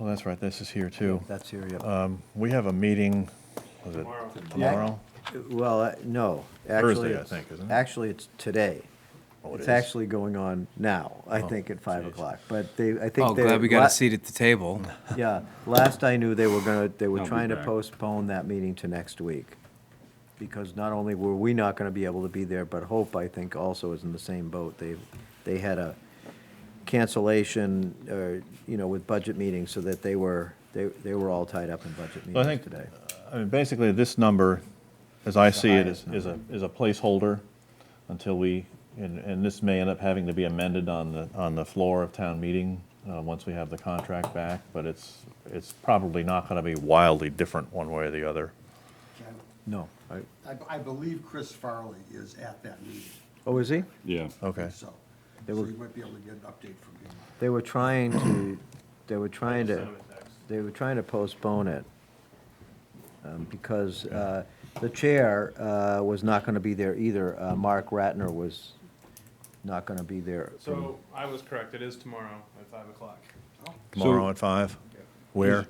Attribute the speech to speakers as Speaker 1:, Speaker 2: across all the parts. Speaker 1: Oh, that's right, this is here too.
Speaker 2: That's here, yeah.
Speaker 1: Um, We have a meeting, was it tomorrow?
Speaker 2: Well, uh, no,
Speaker 1: Thursday, I
Speaker 2: actually, it's-
Speaker 1: think, isn't it?
Speaker 2: actually, it's today.
Speaker 1: Oh, it
Speaker 2: It's
Speaker 1: is. Oh,
Speaker 2: actually going on now, I think, at five
Speaker 1: jeez.
Speaker 2: o'clock, but they, I think.
Speaker 3: Oh,
Speaker 2: they-
Speaker 3: glad we got
Speaker 2: la-
Speaker 3: a seat at the table.
Speaker 2: Yeah, last I knew, they were gonna, they were
Speaker 4: I'll be
Speaker 2: trying to
Speaker 4: back.
Speaker 2: postpone that meeting to next week. Because not only were we not gonna be able to be there, but Hope, I think, also is in the same boat. They, they had a cancellation, or, you know, with budget meetings, so that they were, they, they were all tied up in budget
Speaker 1: So I
Speaker 2: meetings
Speaker 1: think, uh,
Speaker 2: today.
Speaker 1: I mean, basically, this number, as I see it, is,
Speaker 2: highest
Speaker 1: is a, is a placeholder until we, and, and this may end up having to be amended on the, on the floor of town meeting, uh, once we have the contract back, but it's, it's probably not gonna be wildly different one way or the other.
Speaker 5: Ken,
Speaker 2: No, I,
Speaker 5: I, I believe Chris Farley is at that meeting,
Speaker 2: oh, is he?
Speaker 4: Yeah.
Speaker 1: Okay.
Speaker 5: so,
Speaker 2: They
Speaker 5: so
Speaker 2: were-
Speaker 5: you might be able to get an update from him.
Speaker 2: They were trying to, they were trying to, they were trying to postpone it. um, Because uh, the chair uh, was not going to be there either. Uh, Mark Ratner was not going to be there.
Speaker 6: So I was correct. It is tomorrow at five o'clock.
Speaker 1: Tomorrow at five? Where?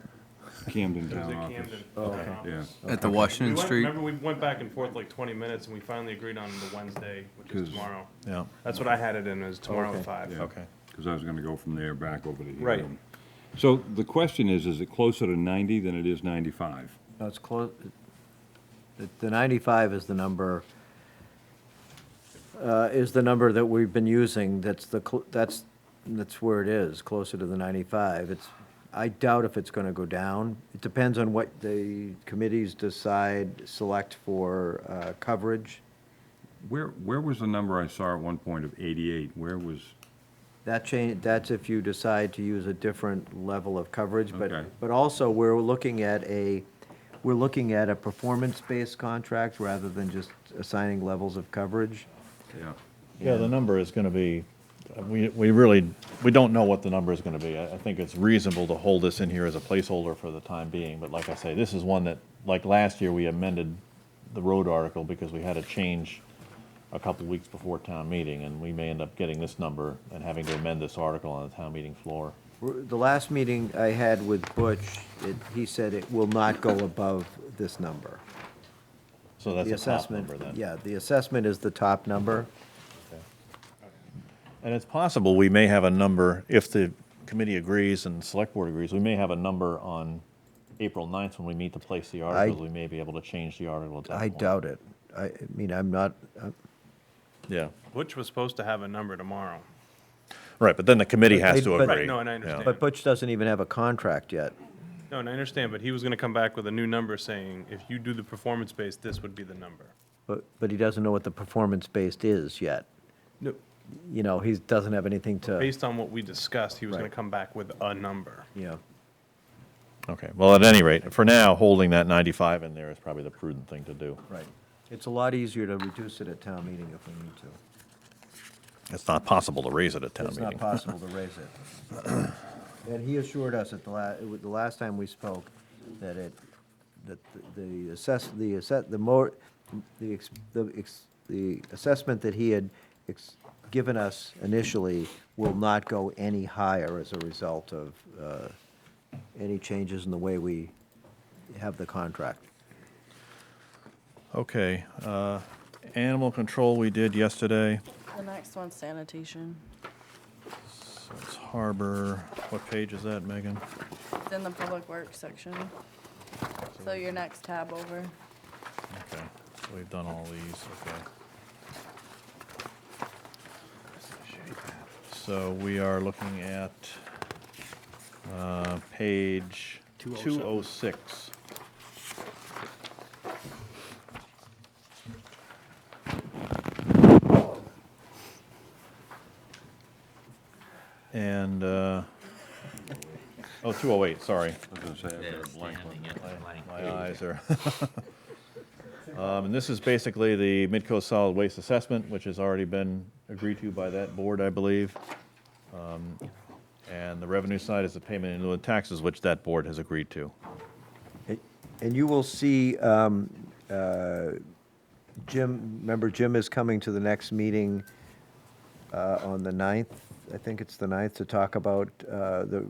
Speaker 4: Camden
Speaker 6: It was
Speaker 4: Town
Speaker 6: at
Speaker 4: Office.
Speaker 6: Camden. Okay.
Speaker 4: Yeah,
Speaker 3: At the
Speaker 6: Um, We
Speaker 3: Washington
Speaker 6: went,
Speaker 3: Street.
Speaker 6: remember, we went back and forth like twenty minutes, and we finally agreed on the Wednesday, which is
Speaker 4: Because-
Speaker 6: tomorrow.
Speaker 1: Yeah,
Speaker 6: That's what I had it in, is tomorrow
Speaker 2: Okay.
Speaker 6: at five.
Speaker 4: yeah.
Speaker 1: Okay.
Speaker 4: Because I was gonna go from there back over to here.
Speaker 6: Right.
Speaker 4: So the question is, is it closer to ninety than it is ninety-five?
Speaker 2: No, it's close, the- the 95 is the number, uh, is the number that we've been using, that's the, cl- that's, that's where it is, closer to the 95. It's, I doubt if it's going to go down. It depends on what the committees decide, select for uh, coverage.
Speaker 4: Where, where was the number I saw at one point of eighty-eight? Where was,
Speaker 2: That change, that's if you decide to use a different level of coverage, but,
Speaker 4: Okay.
Speaker 2: but also, we're looking at a, we're looking at a performance-based contract rather than just assigning levels of coverage.
Speaker 4: yeah,
Speaker 1: Yeah, the number is going to be, we, we really, we don't know what the number is going to be. I, I think it's reasonable to hold this in here as a placeholder for the time being, but like I say, this is one that, like last year, we amended the road article because we had a change a couple weeks before town meeting, and we may end up getting this number and having to amend this article on the town meeting floor.
Speaker 2: The last meeting I had with Butch, it, he said it will not go above this number.
Speaker 1: So
Speaker 2: The
Speaker 1: that's a top
Speaker 2: assessment,
Speaker 1: number then.
Speaker 2: yeah, the assessment is the top number.
Speaker 1: And it's possible we may have a number, if the committee agrees and select board agrees, we may have a number on April 9th when we meet to place the articles. We may be able to change the article at that
Speaker 2: I
Speaker 1: point.
Speaker 2: doubt it. I, I mean, I'm not, uh,
Speaker 1: Yeah,
Speaker 6: Butch was supposed to have a number tomorrow.
Speaker 1: right, but then the committee
Speaker 2: But
Speaker 1: has
Speaker 2: they-
Speaker 1: to
Speaker 2: but-
Speaker 1: agree.
Speaker 6: Right, no, and I
Speaker 1: Yeah.
Speaker 6: understand.
Speaker 2: but Butch doesn't even have a contract yet.
Speaker 6: No, and I understand, but he was gonna come back with a new number saying, if you do the performance based, this would be the number.
Speaker 2: But, but he doesn't know what the performance-based is yet.
Speaker 6: No.
Speaker 2: You know, he doesn't have anything to,
Speaker 6: Based on what we discussed, he was gonna
Speaker 2: Right.
Speaker 6: come back with a number.
Speaker 2: you know.
Speaker 1: Okay, well, at any rate, for now, holding that 95 in there is probably the prudent thing to do.
Speaker 2: Right. It's a lot easier to reduce it at town meeting if we need to.
Speaker 1: It's not possible to raise it at town
Speaker 2: It's
Speaker 1: meeting.
Speaker 2: not possible to raise it. And he assured us at the la, it was the last time we spoke, that it, that the- the assess, the asset, the more, the, ex- the, ex- the assessment that he had ex- given us initially will not go any higher as a result of, uh, any changes in the way we have the contract.
Speaker 1: Okay, uh, animal control we did yesterday,
Speaker 7: The next one's sanitation.
Speaker 1: so it's harbor, what page is that, Megan?
Speaker 7: It's in the public works section. So your next tab over.
Speaker 1: Okay, so we've done all these, okay. So we are looking at uh, page 206. And, uh, oh, 208, sorry.
Speaker 4: I was gonna say, I've got a blank one.
Speaker 1: My eyes are. Um, And this is basically the Midcoast Solid Waste Assessment, which has already been agreed to by that board, I believe. Um, And the revenue side is the payment in lieu of taxes, which that board has agreed to.
Speaker 2: And- And you will see, um, uh, Jim, remember Jim is coming to the next meeting uh, on the 9th, I think it's the 9th, to talk about uh, the